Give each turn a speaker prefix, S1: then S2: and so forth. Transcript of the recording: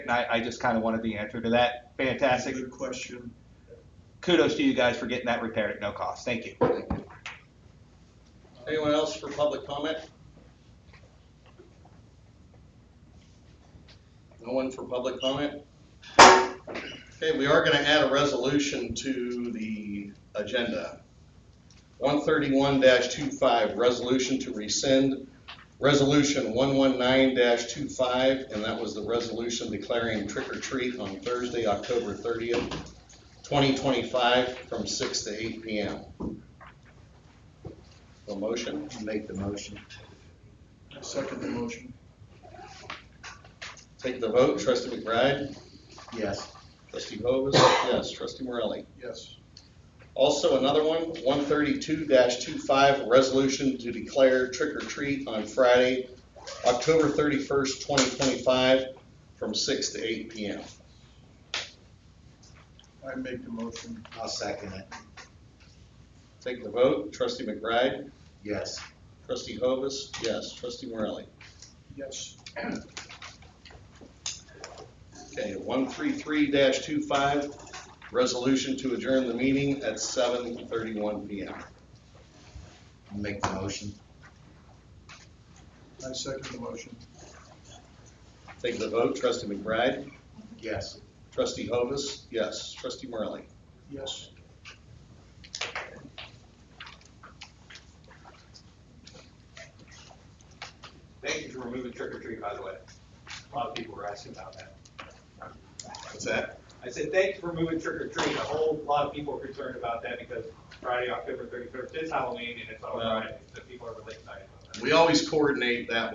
S1: and I, I just kind of wanted the answer to that. Fantastic.
S2: Good question.
S1: Kudos to you guys for getting that repaired at no cost. Thank you.
S3: Anyone else for public comment? No one for public comment? Okay, we are gonna add a resolution to the agenda. One thirty-one 25 resolution to rescind resolution one one nine 25 and that was the resolution declaring trick or treat on Thursday, October thirtieth, twenty twenty-five, from six to eight P M. A motion?
S4: Make the motion.
S2: I second the motion.
S3: Take the vote, trustee McBride,
S4: Yes.
S3: trustee Hovis, yes, trustee Morelli.
S2: Yes.
S3: Also, another one, one thirty-two 25 resolution to declare trick or treat on Friday, October thirty-first, twenty twenty-five, from six to eight P M.
S2: I make the motion.
S4: I'll second it.
S3: Take the vote, trustee McBride,
S4: Yes.
S3: trustee Hovis, yes, trustee Morelli.
S2: Yes.
S3: Okay, one three three 25 resolution to adjourn the meeting at seven thirty-one P M.
S4: Make the motion.
S2: I second the motion.
S3: Take the vote, trustee McBride.
S4: Yes.
S3: Trustee Hovis, yes. Trustee Morelli.
S2: Yes.
S1: Thank you for removing trick or treat, by the way. A lot of people were asking about that.
S3: What's that?
S1: I said, thanks for moving trick or treat. A whole lot of people are concerned about that because Friday, October thirty-first is Halloween and it's on
S3: Well-
S1: Friday, so people are really excited about that.
S3: We always coordinate that